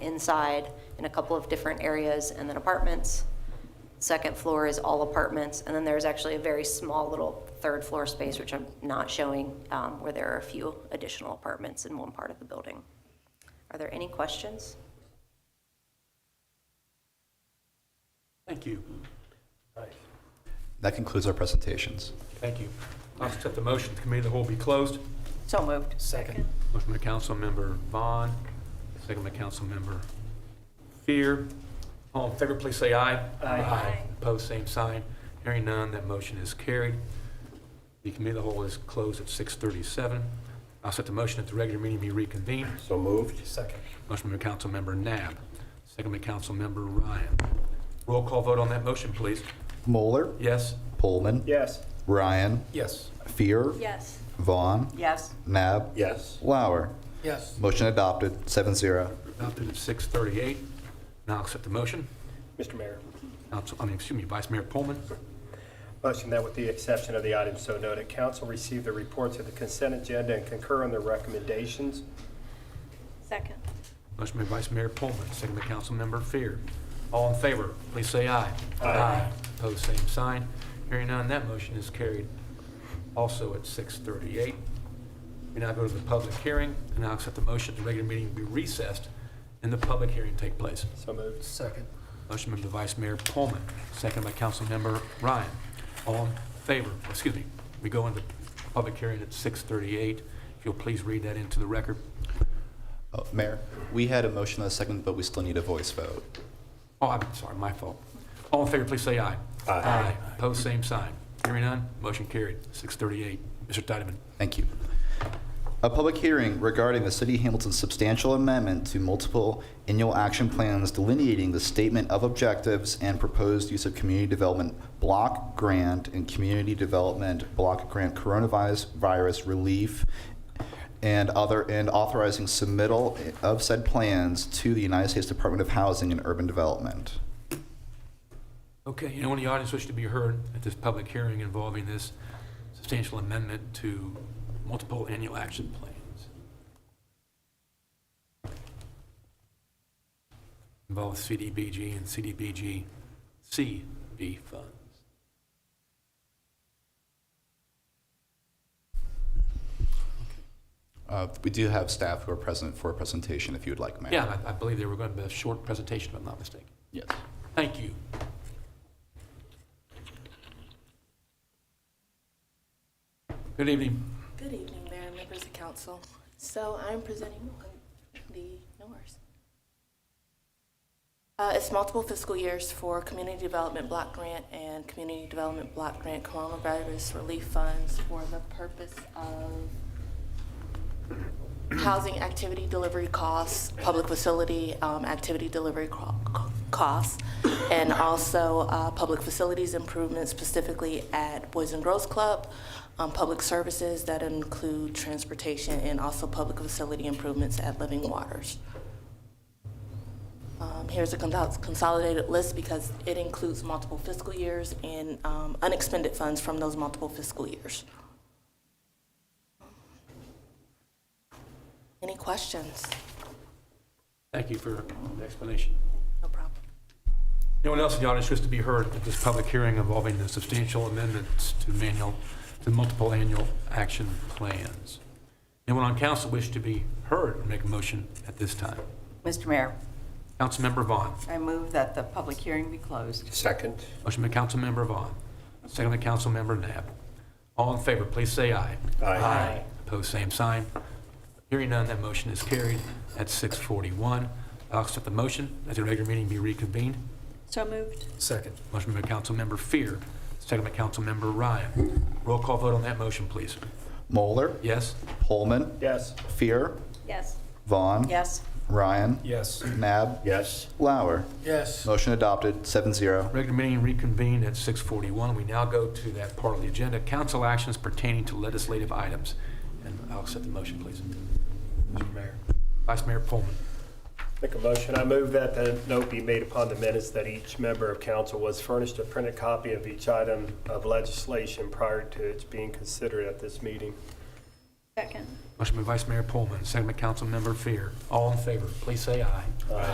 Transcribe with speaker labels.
Speaker 1: inside in a couple of different areas, and then apartments. Second floor is all apartments, and then there's actually a very small little third floor space, which I'm not showing, um, where there are a few additional apartments in one part of the building. Are there any questions?
Speaker 2: Thank you.
Speaker 3: That concludes our presentations.
Speaker 2: Thank you. I'll accept the motion, the committee of the whole be closed.
Speaker 1: So moved.
Speaker 4: Second.
Speaker 2: Motion by Councilmember Vaughn, second by Councilmember Fear. All in favor, please say aye. Aye. Opposed, same sign. Hearing none, that motion is carried. The committee of the whole is closed at 6:37. I'll set the motion that the regular meeting be reconvened.
Speaker 5: So moved?
Speaker 4: Second.
Speaker 2: Motion by Councilmember Nab, second by Councilmember Ryan. Roll call vote on that motion, please.
Speaker 3: Moeller,
Speaker 2: Yes?
Speaker 3: Pullman,
Speaker 4: Yes.
Speaker 3: Ryan,
Speaker 4: Yes.
Speaker 3: Fear,
Speaker 6: Yes.
Speaker 3: Vaughn,
Speaker 1: Yes.
Speaker 3: Nab,
Speaker 5: Yes.
Speaker 3: Lauer.
Speaker 4: Yes.
Speaker 3: Motion adopted, 7-0.
Speaker 2: Adopted at 6:38. Now I'll accept the motion.
Speaker 7: Mr. Mayor,
Speaker 2: Council, I mean, excuse me, Vice Mayor Pullman.
Speaker 7: motion that with the exception of the item so noted, council receive the reports of the consent agenda and concur on their recommendations.
Speaker 6: Second.
Speaker 2: Motion by Vice Mayor Pullman, second by Councilmember Fear. All in favor, please say aye. Aye. Opposed, same sign. Hearing none, that motion is carried also at 6:38. We now go to the public hearing, and I'll accept the motion that the regular meeting be recessed and the public hearing take place.
Speaker 7: So moved.
Speaker 4: Second.
Speaker 2: Motion by Vice Mayor Pullman, second by Councilmember Ryan. All in favor, excuse me, we go into public hearing at 6:38. If you'll please read that into the record.
Speaker 3: Oh, Mayor, we had a motion and a second, but we still need a voice vote.
Speaker 2: Oh, I'm sorry, my fault. All in favor, please say aye.
Speaker 5: Aye.
Speaker 2: Opposed, same sign. Hearing none, motion carried, 6:38. Mr. Titeman.
Speaker 3: Thank you. A public hearing regarding the City of Hamilton's substantial amendment to multiple annual action plans delineating the statement of objectives and proposed use of community development block grant and community development block grant coronavirus virus relief and other, and authorizing submittal of said plans to the United States Department of Housing and Urban Development.
Speaker 2: Okay, anyone in the audience wish to be heard at this public hearing involving this substantial amendment to multiple annual action plans? Involves CDBG and CDBG CB funds.
Speaker 3: Uh, We do have staff who are present for a presentation if you would like, Mayor.
Speaker 2: Yeah, I I believe they were going to be a short presentation, if I'm not mistaken.
Speaker 3: Yes.
Speaker 2: Thank you. Good evening.
Speaker 8: Good evening, Mayor and members of council. So I'm presenting the, no worries. Uh, It's multiple fiscal years for Community Development Block Grant and Community Development Block Grant Coronavirus Relief Funds for the purpose of housing activity delivery costs, public facility um, activity delivery co- co- costs, and also uh, public facilities improvements specifically at Boys and Girls Club, um, public services that include transportation, and also public facility improvements at Living Waters. Um, Here's a consol- consolidated list because it includes multiple fiscal years and um, unexpended funds from those multiple fiscal years. Any questions?
Speaker 2: Thank you for the explanation.
Speaker 8: No problem.
Speaker 2: Anyone else in the audience wish to be heard at this public hearing involving the substantial amendments to manual, to multiple annual action plans? Anyone on council wish to be heard and make a motion at this time?
Speaker 9: Mr. Mayor,
Speaker 2: Councilmember Vaughn.
Speaker 9: I move that the public hearing be closed.
Speaker 5: Second?
Speaker 2: Motion by Councilmember Vaughn, second by Councilmember Nab. All in favor, please say aye.
Speaker 5: Aye. Aye.
Speaker 2: Opposed, same sign. Hearing none, that motion is carried at 6:41. I'll accept the motion that the regular meeting be reconvened.
Speaker 6: So moved.
Speaker 4: Second.
Speaker 2: Motion by Councilmember Fear, second by Councilmember Ryan. Roll call vote on that motion, please.
Speaker 3: Moeller,
Speaker 2: Yes?
Speaker 3: Pullman,
Speaker 7: Yes.
Speaker 3: Fear,
Speaker 6: Yes.
Speaker 3: Vaughn.
Speaker 9: Yes.
Speaker 3: Ryan.
Speaker 4: Yes.
Speaker 3: Nab.
Speaker 5: Yes.
Speaker 3: Lauer.
Speaker 4: Yes.
Speaker 3: Motion adopted, 7-0.
Speaker 2: Regular meeting reconvened at 6:41. We now go to that part of the agenda, council actions pertaining to legislative items. And I'll accept the motion, please.
Speaker 4: Mr. Mayor.
Speaker 2: Vice Mayor Pullman.
Speaker 7: Make a motion. I move that the note be made upon the minutes that each member of council was furnished a printed copy of each item of legislation prior to its being considered at this meeting.
Speaker 6: Second.
Speaker 2: Motion by Vice Mayor Pullman, second by Councilmember Fear. All in favor, please say aye.